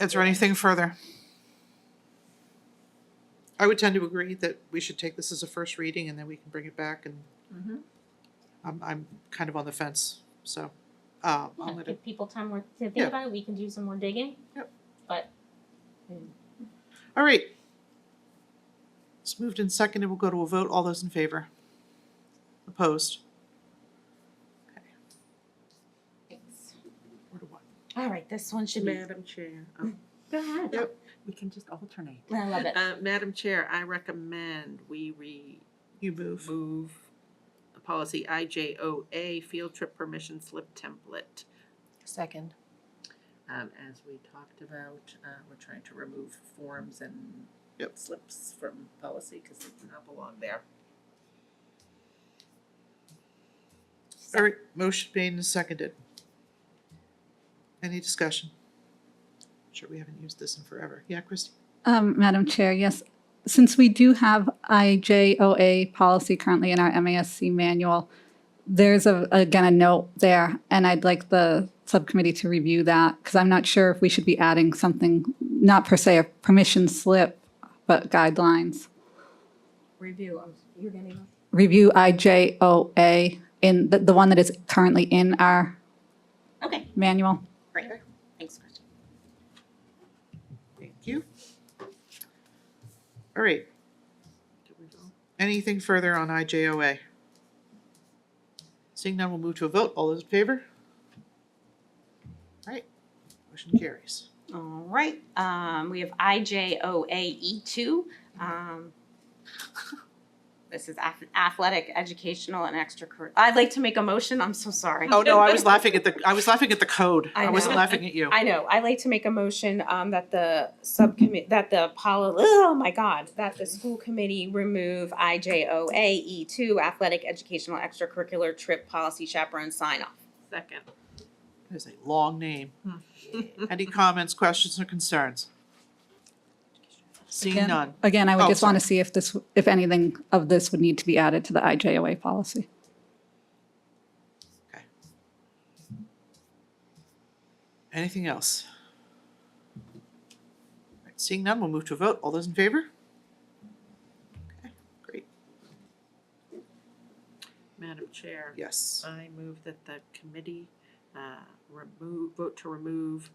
Is there anything further? I would tend to agree that we should take this as a first reading and then we can bring it back and Mhm. I'm, I'm kind of on the fence, so, uh, Yeah, I'll let it, give people time more to think Yeah. about it, we can do some more digging. Yep. But all right. It's moved and seconded, we'll go to a vote, all those in favor? Opposed? Four to one. All right, this one should be. Madam Chair, oh, Go ahead. Yep. Mm, We can just alternate. I love it. uh, Madam Chair, I recommend we remove You move. policy IJOA, field trip permission slip template. Second. Um, as we talked about, uh, we're trying to remove forms and Yep. slips from policy because it does not belong there. All right, motion made and seconded. Any discussion? Sure, we haven't used this in forever. Yeah, Christie? Um, Madam Chair, yes. Since we do have IJOA policy currently in our MASC manual, there's a, again, a note there, and I'd like the subcommittee to review that, because I'm not sure if we should be adding something, not per se a permission slip, but guidelines. Review, you're getting. Review IJOA in, the, the one that is currently in our Okay, manual. great. Thanks, Kristen. Thank you. All right, Did we vote? anything further on IJOA? Seeing none, we'll move to a vote. All those in favor? All right, motion carries. All right, um, we have IJOAE Oh, E, two. Um, this is ath- athletic, educational and extracurricular. I'd like to make a motion, I'm so sorry. Oh, no, I was laughing at the, I was laughing at the code. I I wasn't know. laughing at you. I know, I'd like to make a motion, um, that the subcommit, that the poli, oh my God, that the school committee remove IJOAE E two athletic, educational, extracurricular trip policy chaperone sign off. Second. It's a long name. Any comments, questions, or concerns? Seeing Again? none. Again, I would Oh, just want to see if this, if anything of this would need to be added to the IJOA policy. Anything else? Alright, Seeing none, we'll move to a vote. All those in favor? Okay, Great, Madam Chair. yes. I move that the committee uh, remove, vote to remove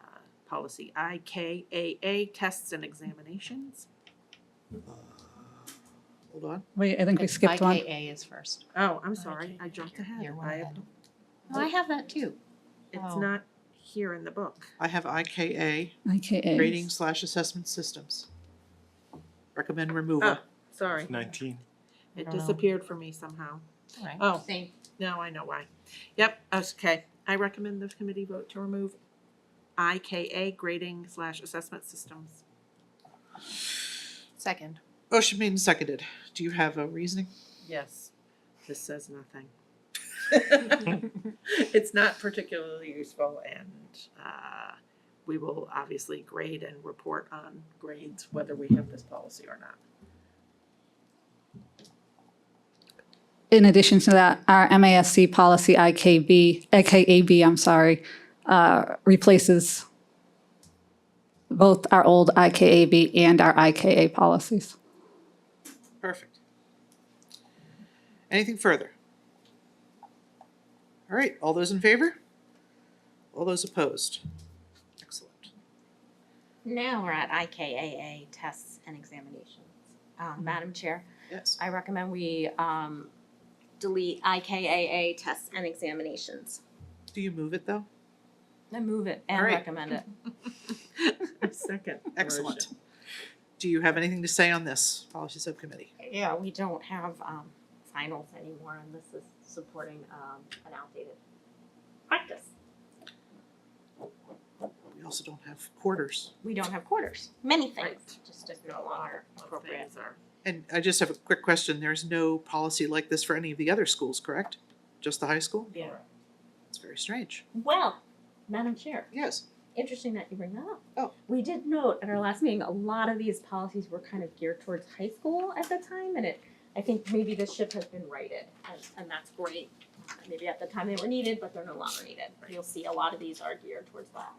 uh, policy IKAA, tests and examinations. Hold on. Wait, I think we skipped one. IKA is first. Oh, I'm sorry, I jumped ahead. You're one I- ahead. I have that too. It's Oh. not here in the book. I have IKA, IKA. rating slash assessment systems. Recommend removal. Ah. Sorry, Nineteen. I it don't know. disappeared from me somehow. Oh, Same. now I know why. Yep, okay. I recommend the committee vote to remove IKA grading slash assessment systems. Second. Motion made and seconded. Do you have a reasoning? Yes. This says nothing. It's not particularly useful and uh, we will obviously grade and report on grades whether we have this policy or not. In addition to that, our MASC policy IKB, IKAB, I'm sorry, uh, replaces both our old IKAB and our IKA policies. Perfect. Anything further? All right, all those in favor? All those opposed? Excellent. Now we're at IKAA tests and examinations. Um, Madam Chair, Yes. I recommend we um, delete IKAA tests and examinations. Do you move it though? I move it and Alright. recommend it. Second. Excellent. Do you have anything to say on this policy subcommittee? Yeah, we don't have um, finals anymore, and this is supporting um, an outdated practice. We also don't have quarters. We don't have quarters. Many things Right. just is no longer appropriate. Things are And I just have a quick question. There's no policy like this for any of the other schools, correct? Just the high school? Yeah. It's very strange. Well, Madam Chair, Yes. interesting that you bring that up. Oh. We did note at our last meeting, a lot of these policies were kind of geared towards high school at the time, and it, I think maybe this ship has been righted, and, and that's great. Maybe at the time they were needed, but they're no longer needed. You'll see a lot of these are geared towards that.